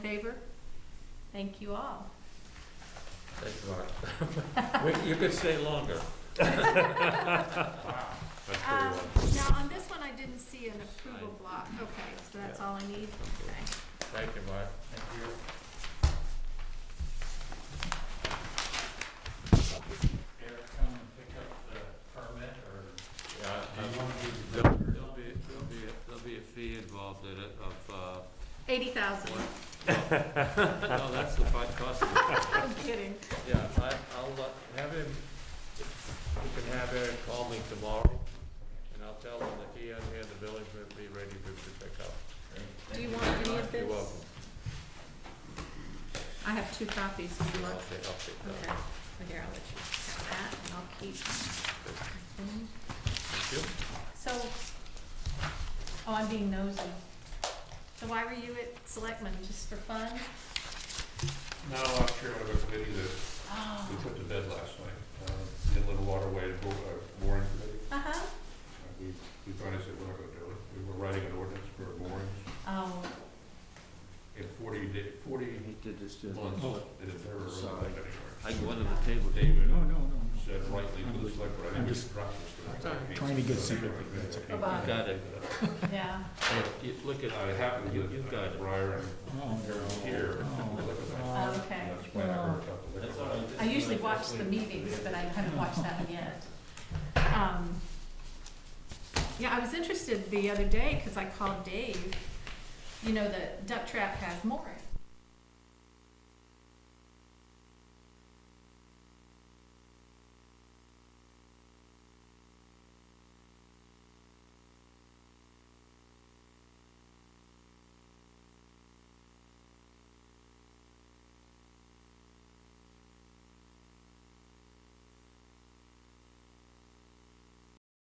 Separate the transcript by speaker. Speaker 1: favor? Thank you all.
Speaker 2: Thanks a lot. We- You could stay longer. That's pretty
Speaker 1: Um,
Speaker 2: well.
Speaker 1: Now, on this one, I didn't see an approval block. Okay, so that's
Speaker 2: Yeah.
Speaker 1: all I need? Okay.
Speaker 2: Thank you, Mark.
Speaker 3: Thank you. Eric, come and pick up the permit, or
Speaker 2: Yeah,
Speaker 3: do you
Speaker 2: uh,
Speaker 3: want to do the
Speaker 2: There'll
Speaker 3: builder?
Speaker 2: there'll be, there'll be, there'll be a fee involved in it of, uh,
Speaker 1: Eighty thousand,
Speaker 2: what? No, no, that's the fi- cost of it.
Speaker 1: I'm kidding.
Speaker 2: Yeah, I, I'll uh, have him, you can have Eric call me tomorrow, and I'll tell him that he and he and the village will be ready for him to pick up.
Speaker 1: Do you want any of
Speaker 2: You're welcome.
Speaker 1: this? I have two copies, do you
Speaker 2: I'll
Speaker 1: want?
Speaker 2: take, I'll take
Speaker 1: Okay,
Speaker 2: that.
Speaker 1: well, here, I'll let you have that, and I'll keep. Mhm.
Speaker 2: Thank you.
Speaker 1: So, oh, I'm being nosy. So why were you at Selectmen, just for fun?
Speaker 4: Now, last year, I was a committee that
Speaker 1: Oh.
Speaker 4: we put to bed last night, uh, the Inland Waterway Bo- uh, Mooring Committee.
Speaker 1: Uh-huh.
Speaker 4: Uh, We, we finally said, we're not gonna do it. We were writing an ordinance for moorings
Speaker 1: Oh,
Speaker 4: in forty day, forty
Speaker 3: did this
Speaker 4: months, and it never really
Speaker 3: Oh. Sorry.
Speaker 4: went anywhere.
Speaker 2: I go under the table.
Speaker 4: David
Speaker 3: No, no, no.
Speaker 4: said rightly to the select board, I
Speaker 3: I'm
Speaker 4: think it's
Speaker 3: just
Speaker 4: drop
Speaker 3: trying to get somebody that's okay.
Speaker 1: Bye-bye.
Speaker 2: Got it.
Speaker 1: yeah.
Speaker 2: You- Look at,
Speaker 4: Uh, it happened
Speaker 2: You- you've
Speaker 4: with
Speaker 2: got
Speaker 4: uh,
Speaker 2: it.
Speaker 4: Briar and
Speaker 3: Oh, no.
Speaker 4: here.
Speaker 3: Oh.
Speaker 4: the liquor license.
Speaker 1: Oh, okay.
Speaker 4: That's why I worked out the liquor
Speaker 2: That's all right.
Speaker 4: license.
Speaker 1: I usually watch the meetings, but I haven't watched that one yet. Um, Yeah, I was interested the other day, because I called Dave, you know, the duck trap has moorings.